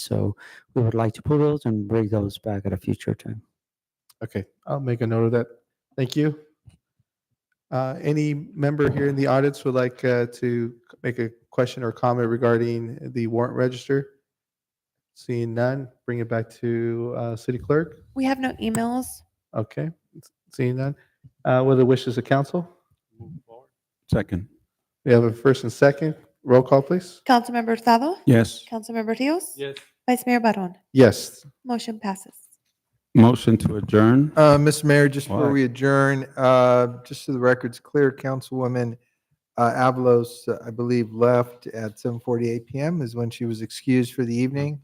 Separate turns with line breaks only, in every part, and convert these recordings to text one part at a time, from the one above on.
So we would like to pull those and bring those back at a future time.
Okay, I'll make a note of that. Thank you. Uh, Any member here in the audience would like uh, to make a question or comment regarding the warrant register? Seeing none, bring it back to uh, city clerk.
We have no emails.
Okay, seeing none. Uh, What are the wishes of council?
Second.
We have a first and second. Roll call, please.
Councilmember Hurtado?
Yes.
Councilmember Rios? Yes. Vice Mayor Barron?
Yes,
Motion passes.
Motion to adjourn.
Uh, Mr. Mayor, just before
Why?
we adjourn, uh, just so the record's clear, Councilwoman uh, Avalos, uh, I believe, left at 7:48 PM is when she was excused for the evening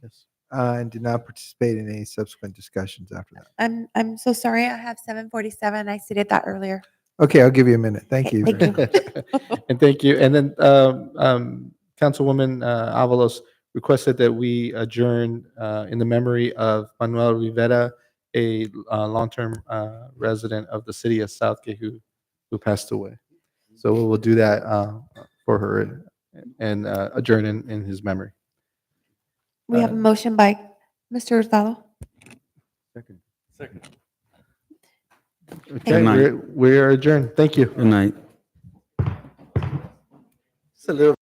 uh, and did not participate in any subsequent discussions after that.
I'm, I'm so sorry. I have 747. I stated that earlier.
Okay, I'll give you a minute. Thank you.
Thank you.
And thank you. And then um, um, Councilwoman uh, Avalos requested that we adjourn uh, in the memory of Manuel Rivera, a uh, long-term uh, resident of the city of Southgate who, who passed away. So we will do that uh, for her and uh, adjourn in, in his memory.
We have a
Uh,
motion by Mr. Hurtado.
Second.
Okay,
night.
we're- we are adjourned. Thank you.
Good night.
It's a little